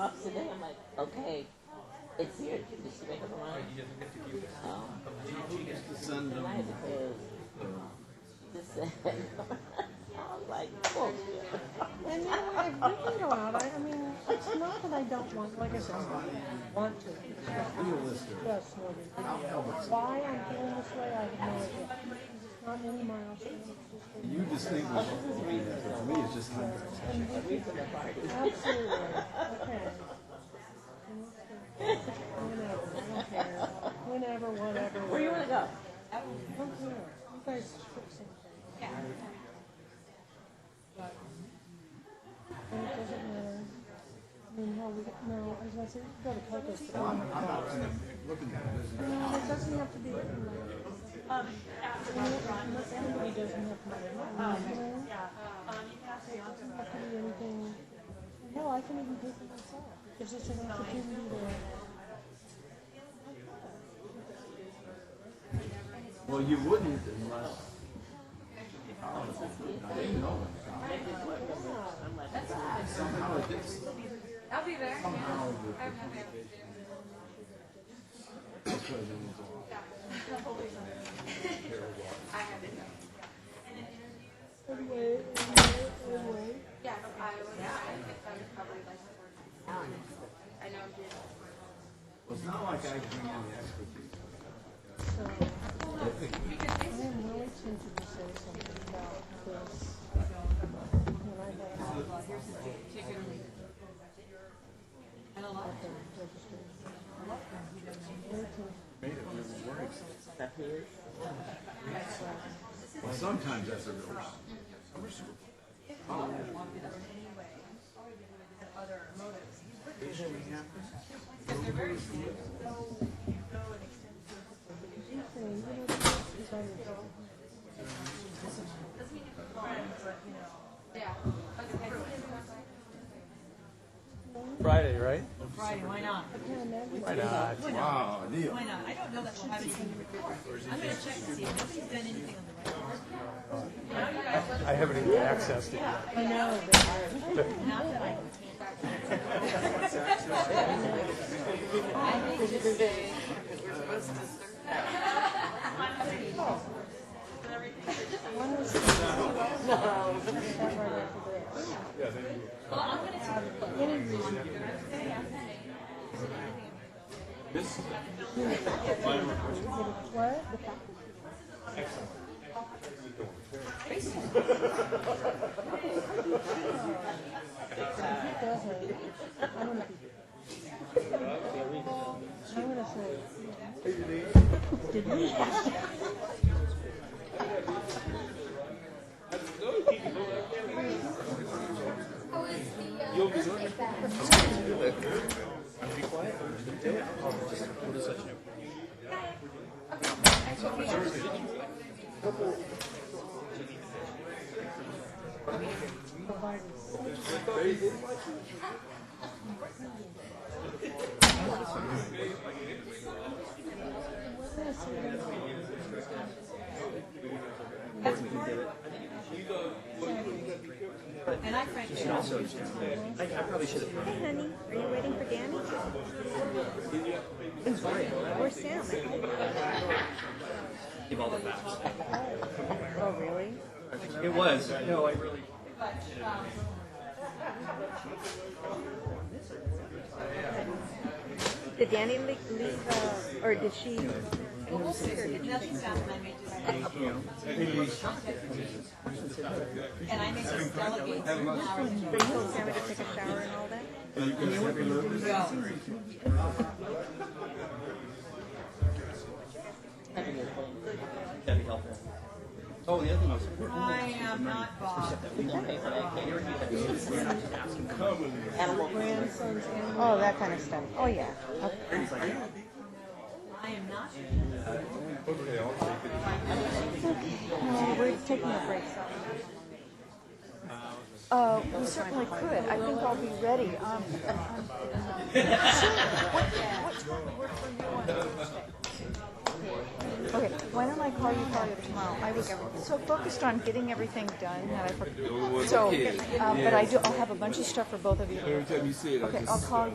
up today. I'm like, okay, it's here. Did she make up her mind? He doesn't get to keep it. Oh, She gets to Send and I had to close. Just saying. I was like, oh, And you know, if we can go out, I, I mean, it's not that I don't want, like I said, I don't want to. you a listener. Yes, Morgan. Why I'm feeling this way, I have no idea. It's Not many miles. from it, it's You distinguish between that, but for me, it's just contracts. just- Absolutely, okay. Whenever, I don't care. Whenever, whatever. where you want to go? I don't care. You guys fix something. And it doesn't matter. I mean, hell, we got, no, I was gonna say, we gotta cut this. I'm, I'm not looking at business. No, it doesn't have to be. like, not Everybody doesn't have to be. Um, yeah. Doesn't have to be anything. No, I can even do it myself. It's just an opportunity to. Well, you wouldn't unless. I didn't know. Somehow it gets, I'll be there. somehow the I have nothing else to do. president's off. I have it. Anyway, anyway, Yeah, I was, I think I was probably like the worst. I know I'm here. Well, it's not like I bring any expertise. so. I am really tempted to say something about this. When I got out of Chicken. And a lot. the registry. Very tempted. Made it really work. Up here. Well, sometimes that's a real issue. Okay, you know, this is how you- Yeah. Friday, right? Friday, why not? Why not? Wow, deal. Why not? I don't know that we'll have anything to report. I'm gonna check to see if nobody's done anything on the right. I haven't even accessed it yet. I know, Not that I can. but what? Excellent. It doesn't. I'm gonna be. I'm gonna say. Did you? And I frankly don't. Hey, honey, are you waiting for Danny? Or Sam? Give all the facts. Oh, really? It was. No, I really. Did Danny le- leave, uh, or did she? Well, we'll figure it. Nothing's done, and I may just. And I may just delegate some hours. So you told Sammy to take a shower and all that? I can just play. That'd be helpful. Oh, the other thing was. I am not Bob. Animal. Oh, that kind of stuff. Oh, yeah. I am not. No, we're taking a break. Uh, we certainly could. I think I'll be ready. Um, sure. What, what time um, would work for you on Thursday? Okay, why don't I call you probably tomorrow? I was was so focused on getting everything done that I forgot. So, uh, but I do, I'll have a bunch of stuff for both of you. Every time you see it, I Okay, just. I'll call you.